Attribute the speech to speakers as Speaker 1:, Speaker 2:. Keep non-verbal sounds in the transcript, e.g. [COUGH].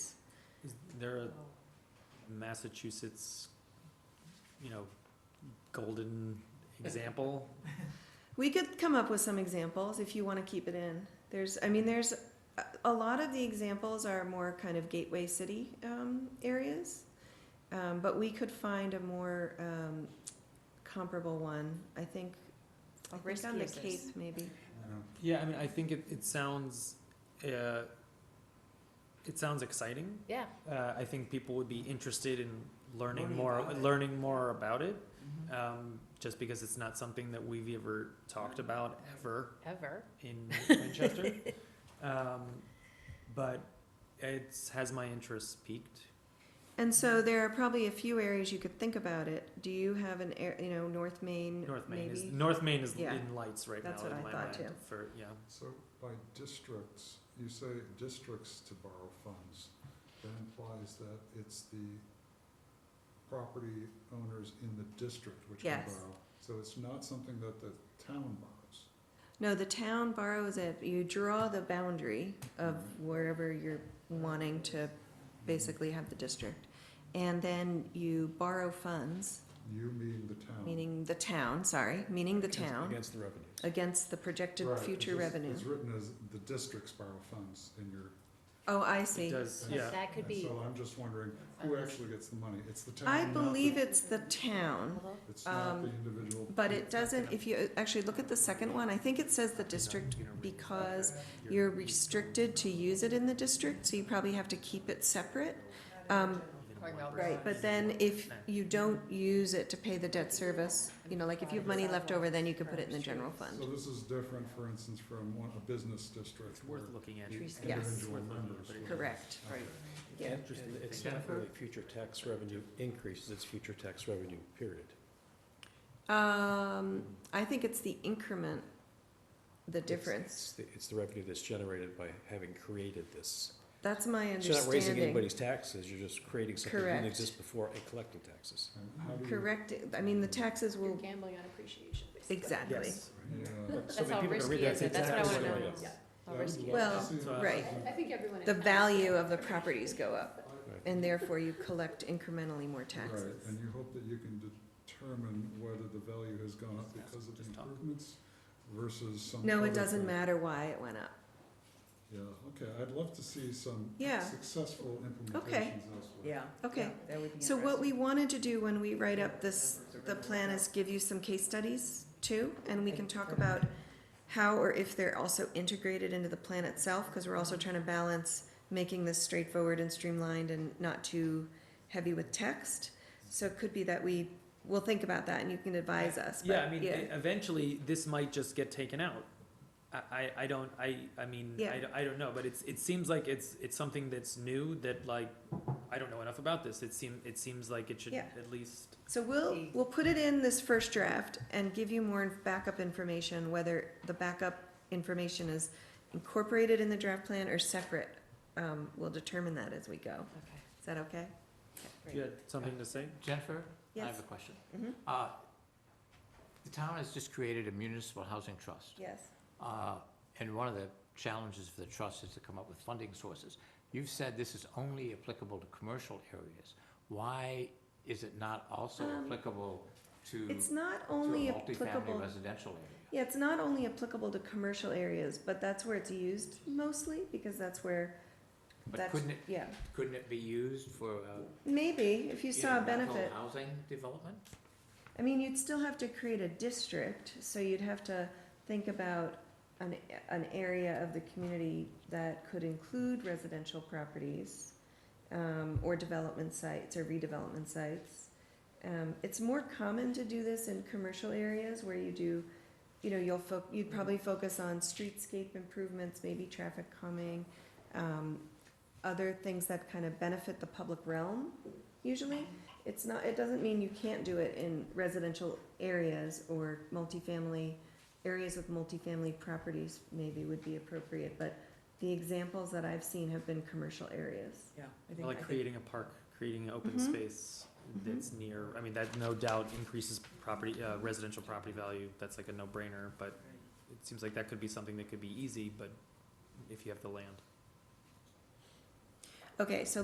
Speaker 1: they're a Massachusetts, you know, golden example.
Speaker 2: We could come up with some examples if you want to keep it in. There's, I mean, there's, a- a lot of the examples are more kind of gateway city um, areas. Um, But we could find a more um, comparable one, I think, I think on the
Speaker 3: riskier
Speaker 2: Cape
Speaker 3: is-
Speaker 2: maybe.
Speaker 1: Yeah, I mean, I think it, it sounds, uh, it sounds exciting.
Speaker 3: Yeah,
Speaker 1: Uh, I think people would be interested in learning
Speaker 4: Learning
Speaker 1: more,
Speaker 4: about it.
Speaker 1: learning more about it,
Speaker 4: Mhm.
Speaker 1: um, just because it's not something that we've ever talked about ever.
Speaker 3: ever.
Speaker 1: in [LAUGHS] Manchester. um, but it has my interest peaked.
Speaker 2: And so there are probably a few areas you could think about it. Do you have an, air- you know, North Main?
Speaker 1: North Main is
Speaker 2: maybe?
Speaker 1: North Main is
Speaker 2: Yeah.
Speaker 1: in lights right
Speaker 2: That's
Speaker 1: now in
Speaker 2: what I
Speaker 1: my
Speaker 2: thought,
Speaker 1: mind
Speaker 2: too.
Speaker 1: for yeah.
Speaker 4: So by districts, you say districts to borrow funds, that implies that it's the property owners in the district which can
Speaker 2: Yes.
Speaker 4: borrow. So it's not something that the town borrows.
Speaker 2: No, the town borrows it. You draw the boundary of
Speaker 1: Mm.
Speaker 2: wherever you're wanting to basically have the district. And then you borrow funds,
Speaker 4: You mean the town.
Speaker 2: meaning the town, sorry, meaning the town,
Speaker 5: Against the revenues.
Speaker 2: against the projected
Speaker 4: Right,
Speaker 2: future
Speaker 4: it's-
Speaker 2: revenue.
Speaker 4: It's written as the districts borrow funds in your.
Speaker 2: Oh, I
Speaker 1: It
Speaker 2: see.
Speaker 1: does
Speaker 3: So
Speaker 1: yeah.
Speaker 3: that could
Speaker 4: and
Speaker 3: be,
Speaker 4: So I'm just wondering, who actually gets the money? It's the town,
Speaker 2: I
Speaker 4: not the-
Speaker 2: believe it's the town,
Speaker 3: Although-
Speaker 4: It's not the
Speaker 2: um,
Speaker 4: individual.
Speaker 2: but it doesn't, if you actually look at the second one, I think it says the district because you're restricted to use it in the district, so you probably have to keep it separate. Um, Right, but then if you don't use it to pay the debt service, you know, like if you have money left over, then you can put it in the general
Speaker 4: So
Speaker 2: fund.
Speaker 4: this is different, for instance, from one, a business district
Speaker 1: it's
Speaker 4: where.
Speaker 1: worth looking at.
Speaker 4: the
Speaker 3: Trees.
Speaker 2: Yes.
Speaker 4: individual
Speaker 1: Worth looking at,
Speaker 4: members
Speaker 1: but it-
Speaker 4: would-
Speaker 2: Correct.
Speaker 4: Okay.
Speaker 2: Yeah.
Speaker 5: And
Speaker 1: Interesting
Speaker 5: and it's
Speaker 1: thing.
Speaker 5: not really future tax revenue increases, it's future tax revenue, period.
Speaker 2: Um, I think it's the increment, the
Speaker 5: It's- It's
Speaker 2: difference.
Speaker 5: the- it's the revenue that's generated by having created this.
Speaker 2: That's my
Speaker 5: So You're not raising
Speaker 2: understanding.
Speaker 5: anybody's taxes, you're just creating something that
Speaker 2: Correct.
Speaker 5: didn't exist before and collecting taxes.
Speaker 4: And how do you-
Speaker 2: Correct, I mean, the taxes
Speaker 3: You're
Speaker 2: will,
Speaker 3: gambling on appreciation, basically.
Speaker 2: exactly.
Speaker 1: Yes.
Speaker 4: Yeah.
Speaker 3: That's how risky is it? That's what I
Speaker 5: tax
Speaker 3: wanna
Speaker 5: away.
Speaker 3: know.
Speaker 5: Yeah.
Speaker 3: Yeah,
Speaker 4: I
Speaker 3: How
Speaker 4: would
Speaker 3: risky
Speaker 4: like
Speaker 3: is
Speaker 2: Well,
Speaker 4: to see that
Speaker 2: right.
Speaker 4: as
Speaker 3: it? I
Speaker 4: a-
Speaker 3: think everyone.
Speaker 2: The value of the properties go up,
Speaker 4: Right,
Speaker 2: and therefore you collect incrementally more
Speaker 4: Right, and
Speaker 2: taxes.
Speaker 4: you hope that you can determine whether the value has gone up because of the
Speaker 1: Just talk.
Speaker 4: improvements versus some.
Speaker 2: No, it
Speaker 4: other
Speaker 2: doesn't
Speaker 4: thing.
Speaker 2: matter why it went up.
Speaker 4: Yeah, okay, I'd love to see some
Speaker 2: Yeah.
Speaker 4: successful
Speaker 2: Okay.
Speaker 4: implementations elsewhere.
Speaker 2: Okay. So what we wanted to do when we write up this, the plan is give you some case studies too, and we can talk about how or if they're also integrated into the plan itself, because we're also
Speaker 1: Mm-hmm.
Speaker 2: trying to balance making this straightforward and streamlined and not too heavy with text. So it could be that we, we'll think about that and you can advise us.
Speaker 1: Yeah,
Speaker 2: but
Speaker 1: I mean,
Speaker 2: yeah.
Speaker 1: e- eventually this might just get taken out. I, I, I don't, I, I mean, I,
Speaker 2: Yeah.
Speaker 1: d- I don't know, but it's, it seems like it's, it's something that's new that like, I don't know enough about this. It seem, it seems like it should
Speaker 2: Yeah.
Speaker 1: at least,
Speaker 2: So we'll, we'll put it in this first draft and give you more backup information, whether the backup information is incorporated in the draft plan or separate. Um, we'll determine that as we go.
Speaker 3: Okay,
Speaker 2: Is that okay?
Speaker 1: you had something to say?
Speaker 6: Jennifer, I
Speaker 2: Yes,
Speaker 6: have a question.
Speaker 2: Mhm.
Speaker 6: Uh, The town has just created a municipal housing trust,
Speaker 2: yes.
Speaker 6: uh, and one of the challenges for the trust is to come up with funding sources. You've said this is only applicable to commercial areas. Why is it not also
Speaker 2: Um,
Speaker 6: applicable to
Speaker 2: It's not
Speaker 6: to a
Speaker 2: only
Speaker 6: multifamily
Speaker 2: applicable,
Speaker 6: residential area?
Speaker 2: yeah, it's not only applicable to commercial areas, but that's where it's used mostly, because that's where,
Speaker 6: But
Speaker 2: that's,
Speaker 6: couldn't it,
Speaker 2: yeah.
Speaker 6: couldn't it be used for, uh,
Speaker 2: Maybe, if you
Speaker 6: you
Speaker 2: saw a
Speaker 6: know, rental
Speaker 2: benefit.
Speaker 6: housing development?
Speaker 2: I mean, you'd still have to create a district, so you'd have to think about an, an area of the community that could include residential properties, um, or development sites or redevelopment sites. Um, it's more common to do this in commercial areas where you do, you know, you'll fo- you'd probably focus on streetscape improvements, maybe traffic calming, um, other things that kind of benefit the public realm, usually. It's not, it doesn't mean you can't do it in residential areas or multifamily, areas with multifamily properties maybe would be appropriate, but the examples that I've seen have been commercial areas.
Speaker 3: yeah,
Speaker 1: Like creating a park, creating an open
Speaker 2: Mhm.
Speaker 1: space that's near, I mean, that no doubt increases property, uh, residential property value. That's like a no-brainer, but it seems like that could be something that could be easy, but if you have the land.
Speaker 2: Okay, so